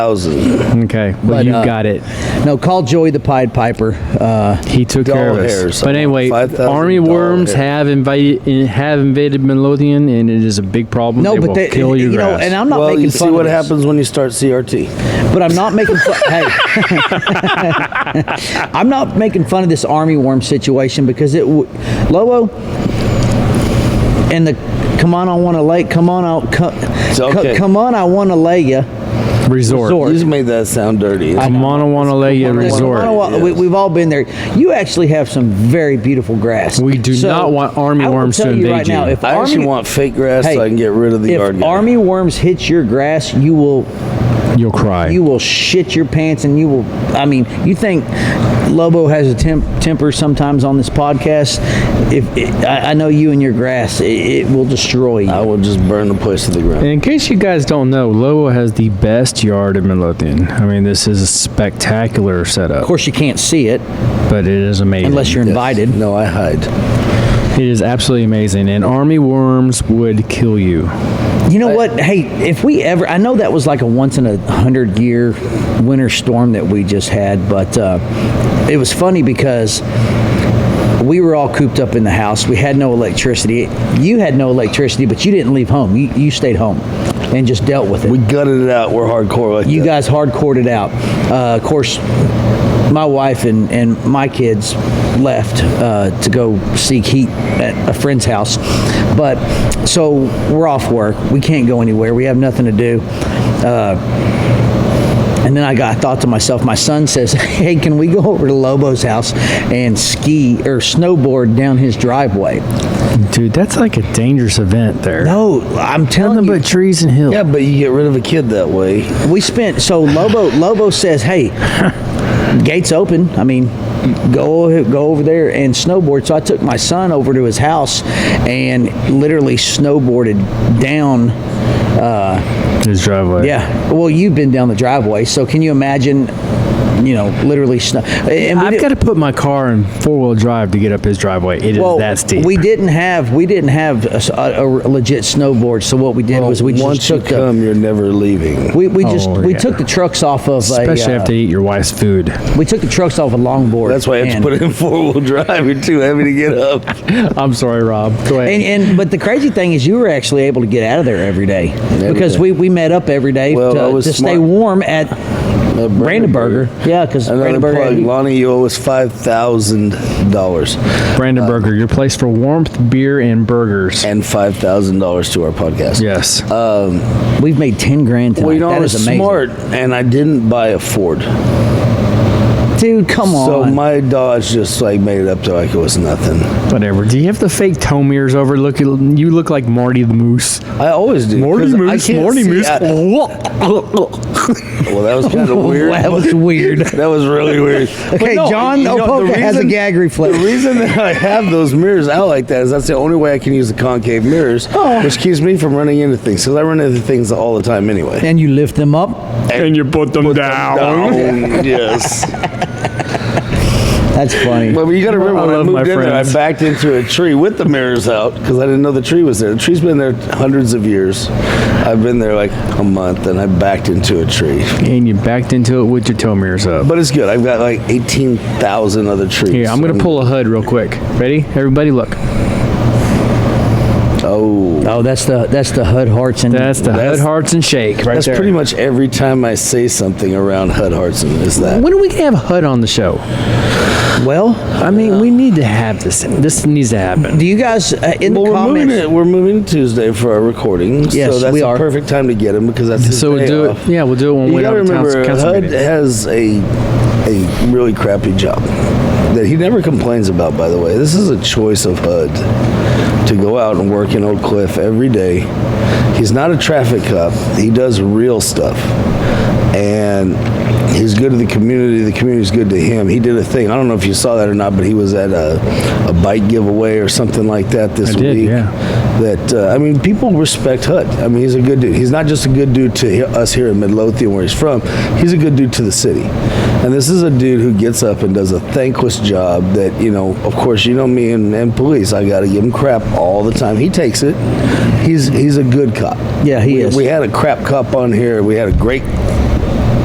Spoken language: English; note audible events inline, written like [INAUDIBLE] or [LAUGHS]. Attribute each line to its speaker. Speaker 1: thousand.
Speaker 2: Okay, well,
Speaker 3: But,
Speaker 2: you
Speaker 3: uh,
Speaker 2: got it.
Speaker 3: No, call Joey the Pied Piper. Uh,
Speaker 2: He took care of
Speaker 1: dollar
Speaker 2: us.
Speaker 1: hairs,
Speaker 2: But anyway,
Speaker 1: $5,000
Speaker 2: army worms
Speaker 1: hair.
Speaker 2: have invaded have invaded Midlothian, and it is a big problem.
Speaker 3: no,
Speaker 2: they
Speaker 3: but
Speaker 2: will
Speaker 3: they,
Speaker 2: kill your
Speaker 3: you know,
Speaker 2: grass.
Speaker 3: and I'm not
Speaker 1: well,
Speaker 3: making
Speaker 1: you
Speaker 3: fun
Speaker 1: see what
Speaker 3: of this,
Speaker 1: happens when you start CRT.
Speaker 3: But I'm not making fun. hey,
Speaker 1: [LAUGHS]
Speaker 3: I'm not making fun of this army worm situation because it, w- Lobo, and the come on, I want to lay, come on, I'll co- co-
Speaker 1: okay.
Speaker 3: come on, I want to lay you.
Speaker 2: resort.
Speaker 3: resort.
Speaker 1: You just made that sound dirty.
Speaker 2: A Monowanalea
Speaker 3: I
Speaker 2: resort.
Speaker 3: don't want- we,
Speaker 1: Yes.
Speaker 3: we've all been there. You actually have some very beautiful grass.
Speaker 2: We do not want army
Speaker 3: I will
Speaker 2: worms
Speaker 3: tell
Speaker 2: to
Speaker 3: you
Speaker 2: invade
Speaker 3: right Now,
Speaker 2: you.
Speaker 3: if
Speaker 1: I
Speaker 3: army,
Speaker 1: actually want fake grass
Speaker 3: Hey,
Speaker 1: so I can get rid of the
Speaker 3: if
Speaker 1: yard. guy.
Speaker 3: army worms hit your grass, you will
Speaker 2: You'll cry.
Speaker 3: you will shit your pants and you will. I mean, you think Lobo has a temp, temper sometimes on this podcast? If I, I know you and your grass, it, it will destroy you.
Speaker 1: I will just burn the place to the ground.
Speaker 2: in case you guys don't know, Lowell has the best yard in Midlothian. I mean, this is a spectacular
Speaker 3: of
Speaker 2: setup,
Speaker 3: course, you can't see it
Speaker 2: but it is amazing.
Speaker 3: unless you're
Speaker 1: Yes.
Speaker 3: invited.
Speaker 1: No, I hide.
Speaker 2: It is absolutely amazing, and army worms would kill you.
Speaker 3: You know what? Hey, if we ever, I know that was like a once in a hundred year winter storm that we just had, but uh, it was funny because we were all cooped up in the house. We had no electricity. You had no electricity, but you didn't leave home. You, you stayed home and just dealt with it.
Speaker 1: We gutted it out. We're hardcore like
Speaker 3: you
Speaker 1: that.
Speaker 3: guys hardcored it out. Uh, of course, my wife and, and my kids left uh, to go seek heat at a friend's house. But so we're off work. We can't go anywhere. We have nothing to do. Uh, and then I got thought to myself, my son says, [LAUGHS] Hey, can we go over to Lobo's house and ski or snowboard down his driveway?
Speaker 2: Dude, that's like a dangerous event there.
Speaker 3: No, I'm telling
Speaker 2: Nothing
Speaker 3: you,
Speaker 2: but trees and hills.
Speaker 1: Yeah, but you get rid of a kid that way.
Speaker 3: we spent so Lobo Lobo says, "Hey, gates open. I mean, go go over there and snowboard." So I took my son over to his house and literally snowboarded down. Uh,
Speaker 2: His driveway.
Speaker 3: yeah. Well, you've been down the driveway, so can you imagine? You know, literally snow. And we
Speaker 2: I've
Speaker 3: did-
Speaker 2: got to put my car in four wheel drive to get up his driveway. It is
Speaker 3: well,
Speaker 2: that steep.
Speaker 3: we didn't have we didn't have a, s- a- a legit snowboard. So what we did was we
Speaker 1: once
Speaker 3: just
Speaker 1: you
Speaker 3: took the,
Speaker 1: come, you're never leaving.
Speaker 3: we, we just
Speaker 2: Oh,
Speaker 3: we
Speaker 2: yeah.
Speaker 3: took the trucks off of
Speaker 2: Especially
Speaker 3: a, uh,
Speaker 2: after you eat your wife's food. [LAUGHS]
Speaker 3: we took the trucks off a longboard.
Speaker 1: That's why I have to
Speaker 3: and-
Speaker 1: put it in [LAUGHS] four wheel drive. You're too heavy to get up.
Speaker 2: I'm sorry, Rob. Go ahead.
Speaker 3: And, and but the crazy thing is, you were actually able to get out of there every day because
Speaker 1: day.
Speaker 3: we, we met up every day
Speaker 1: Well, I
Speaker 3: to,
Speaker 1: was
Speaker 3: to stay
Speaker 1: smart.
Speaker 3: warm at
Speaker 1: Brandenburger.
Speaker 3: Brandenburger. Yeah, because
Speaker 1: Another plug,
Speaker 3: Brandenburger.
Speaker 1: Lonnie, you owe us five thousand dollars
Speaker 2: Brandon Burger, your place for warmth, beer, and burgers.
Speaker 1: and five thousand dollars to our podcast.
Speaker 2: yes.
Speaker 3: We've made ten grand tonight.
Speaker 1: Well, you know, I
Speaker 3: that
Speaker 1: was
Speaker 3: is amazing,
Speaker 1: smart, and I didn't buy a Ford.
Speaker 3: dude. Come on.
Speaker 1: So my Dodge just like made it up to like it was nothing.
Speaker 2: Whatever. Do you have the fake toe mirrors over? Look, you look like Marty the Moose.
Speaker 1: I always do. 'cause I can't see out- well, that was kind
Speaker 3: [LAUGHS]
Speaker 1: of weird.
Speaker 3: that
Speaker 1: [LAUGHS]
Speaker 3: was weird.
Speaker 1: That was really
Speaker 3: [LAUGHS]
Speaker 1: weird.
Speaker 3: Okay, John Opoka has a gag reflex.
Speaker 1: The reason that I have those mirrors out like that is that's the only way I can use the concave mirrors,
Speaker 3: Oh.
Speaker 1: which keeps me from running into things because I run into things all the time
Speaker 3: [LAUGHS]
Speaker 1: anyway.
Speaker 3: and you lift them up.
Speaker 2: [LAUGHS] And you put them
Speaker 3: Oh,
Speaker 2: down.
Speaker 1: Down, Um, yes.
Speaker 3: That's funny.
Speaker 1: But you got to
Speaker 2: I
Speaker 1: remember when I
Speaker 2: love
Speaker 1: moved
Speaker 2: my
Speaker 1: in there, I
Speaker 2: friends.
Speaker 1: backed into a tree with the mirrors out because I didn't know the tree was there. The tree's been there hundreds of years. I've been there like a month, and I backed into a tree.
Speaker 2: And you backed into it with your toe mirrors up.
Speaker 1: But it's good. I've got like eighteen thousand other trees.
Speaker 2: Here, I'm going
Speaker 1: And-
Speaker 2: to pull a hood real quick. Ready? Everybody, look.
Speaker 1: Oh,
Speaker 3: oh, that's the that's the HUD hearts and
Speaker 2: That's the
Speaker 1: That's-
Speaker 2: hood, hearts, and shake right
Speaker 1: that's
Speaker 2: there.
Speaker 1: pretty much every time I say something around Hud Hartson. Is that?
Speaker 2: When are we going to have HUD on the show?
Speaker 3: well.
Speaker 2: I mean, we need to have this. This needs to happen.
Speaker 3: Do you guys uh, in
Speaker 1: Well,
Speaker 3: the
Speaker 1: we're moving
Speaker 3: comments?
Speaker 1: it. We're moving Tuesday for our recording.
Speaker 3: Yes,
Speaker 1: so that's
Speaker 3: we
Speaker 1: the
Speaker 3: are.
Speaker 1: perfect time to get him because that's his
Speaker 2: So
Speaker 1: day
Speaker 2: we'll do
Speaker 1: off.
Speaker 2: it. Yeah, we'll do it when
Speaker 1: You
Speaker 2: we're
Speaker 1: gotta
Speaker 2: out of
Speaker 1: remember,
Speaker 2: town. Council
Speaker 1: HUD
Speaker 2: meeting.
Speaker 1: has a a really crappy job that he never complains about. By the way, this is a choice of HUD to go out and work in Oak Cliff every day. He's not a traffic cop. He does real stuff, and he's good to the community. The community's good to him. He did a thing. I don't know if you saw that or not, but he was at a, a bike giveaway or something like that this
Speaker 2: I did,
Speaker 1: week
Speaker 2: yeah.
Speaker 1: that uh, I mean, people respect Hut. I mean, he's a good dude. He's not just a good dude to he- us here in Midlothian, where he's from. He's a good dude to the city. And this is a dude who gets up and does a thankless job. That you know, of course, you know me and, and police. I got to give him crap all the time. He takes it. He's he's a good cop.
Speaker 3: Yeah, he
Speaker 1: we,
Speaker 3: is.
Speaker 1: We had a crap cop on here. We had a great